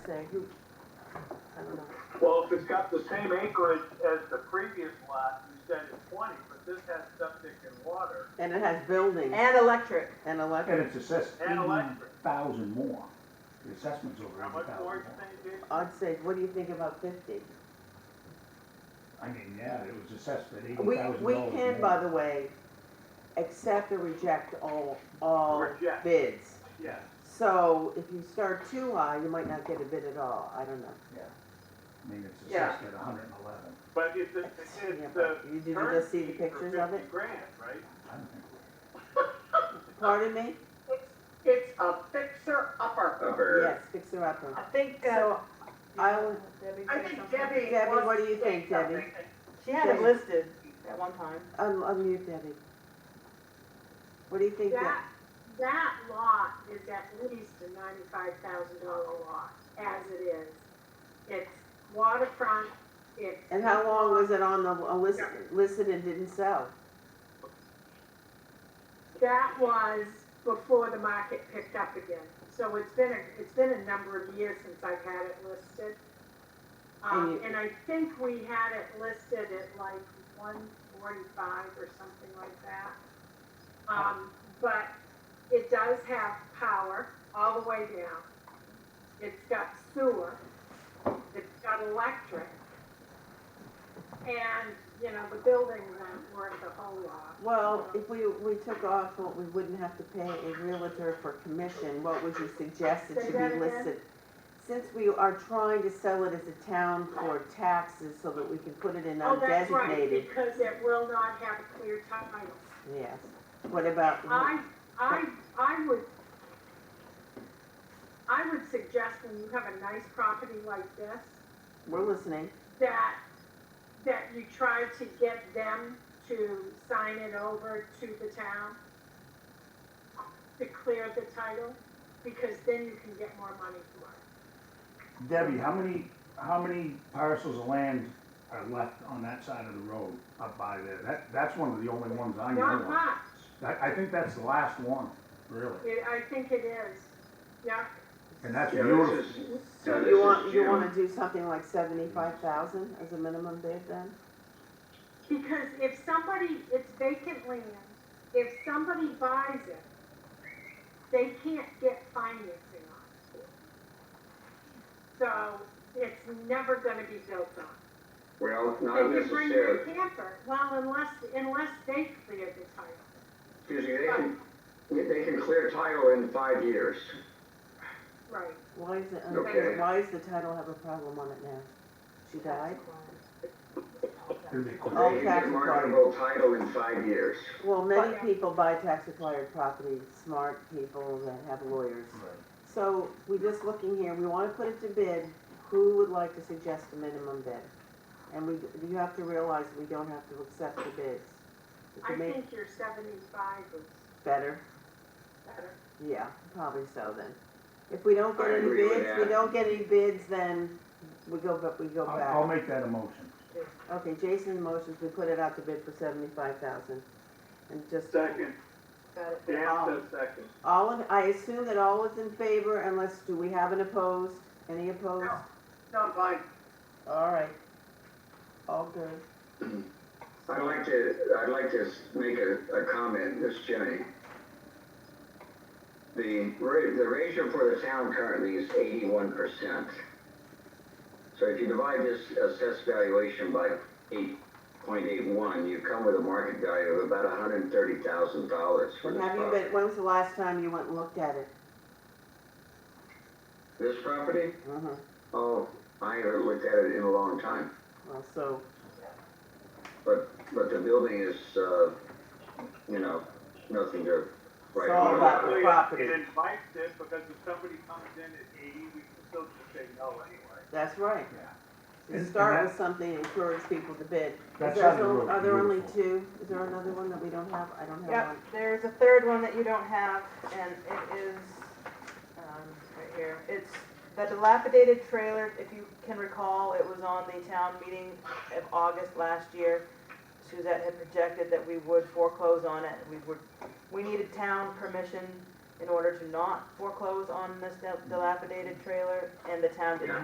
say, who, I don't know. Well, if it's got the same acreage as the previous lot, you said it's twenty, but this has septic and water And it has buildings And electric. and And electric, it's assessed and eighty electric. thousand more. The assessment's over How eighty much thousand more more. you think, Jason? I'd say, what do you think about fifty? I mean, yeah, it was assessed at eighty We, thousand dollars we more. can, by the way, accept or reject all, all Reject. bids. Yeah. So if you start too high, you might not get a bid at all, I don't know. I mean, it's Yeah. assessed at hundred and eleven. But it's, it's, Yeah, it's the but You did you current just see the fee for pictures of it? fifty grand, right? I don't think Pardon me? It's, it's a fixer upper. Yes, fix her up. I think, uh. So, I would- Debbie I said think something. Debbie. Debbie, wants what do to you say think, Debbie? something. She had it listed at one time. un- unmute Debbie. What do you think? Deb? That, that lot is at least a ninety-five thousand dollar lot, as it is. It's waterfront, it's. And how long was it on the, uh, list, listed and didn't sell? That was before the market picked up again, so it's been a, it's been a number of years since I've had it listed. And Um, you- and I think we had it listed at like one forty-five or something like that. Um, but it does have power all the way down. It's got sewer, it's got electric. And, you know, the buildings aren't worth a whole lot. Well, if we, we took off what we wouldn't have to pay a realtor for commission, what would you suggest it Say should that be again? listed? Since we are trying to sell it as a town for taxes so that we can put it in Oh, that's right, undesignated, because it will not have a clear title. yes. What about, I, I, I would, I would suggest when you have a nice property like this, we're listening, that, that you try to get them to sign it over to the town to clear the title, because then you can get more money for it. we- Debbie, how many, how many parcels of land are left on that side of the road up by there? That, that's one of the only ones I know Not of. much, I, I think that's the last one, really. it, I think it is, yeah, And that's Yeah, this beautiful. is, so yeah, this you is want, you Jim. wanna do something like seventy-five thousand as a minimum bid then? Because if somebody, it's vacant land, if somebody buys it, they can't get financing on it. So it's never gonna be built on. Well, not They can bring their necessarily, camper, well, unless, unless they clear the title. excuse me, they can, they can clear title in five years. Right. Why is it, Okay. why is the title have a problem on it now? She died? It'd be cool. Oh, They can tax get card. marketable title in five years. Well, many Oh, yeah. people buy tax-acquired property, smart people that have lawyers. Right. So we're just looking here, we wanna put it to bid, who would like to suggest a minimum bid? And we, you have to realize we don't have to accept the bids. If I you make think your seventy-five is better, better. yeah, probably so then. If we don't get I any agree with bids, we that. don't get any bids, then we go, but we go I'll, I'll back. make that a motion. Okay, Jason motions, we put it out to bid for seventy-five thousand. And just, Second, Got it. Dan Um, says second. all, in- I assume that all is in favor unless, do we have an opposed? Any opposed? No. Not mine. All right. All good. I'd like to, I'd like to s- make a, a comment, this is Jimmy. The, ra- the ratio for the town currently is eighty-one percent. So if you divide this assessed valuation by eight point eight one, you come with a market value of about hundred and thirty thousand dollars for And this have you property. been, when was the last time you went and looked at it? This property? Uh-huh. Oh, I haven't looked at it in a long time, Well, so, but, but the building is, uh, you know, nothing to write It's all home about the Actually, property. It invites it, because if somebody comes in at eighty, we can still just say no anyway. that's right. And- You and start that- with something, and encourage people to bid. Is That there, side of the so- road are is there only beautiful. two? Is there another one that we don't have? I don't have Yep, one. there's a third one that you don't have, and it is, um, right here. It's the dilapidated trailer, if you can recall, it was on the town meeting of August last year. Suzette had projected that we would foreclose on it, we would, we needed town permission in order to not foreclose on this dil- dilapidated trailer, and the town did Yeah.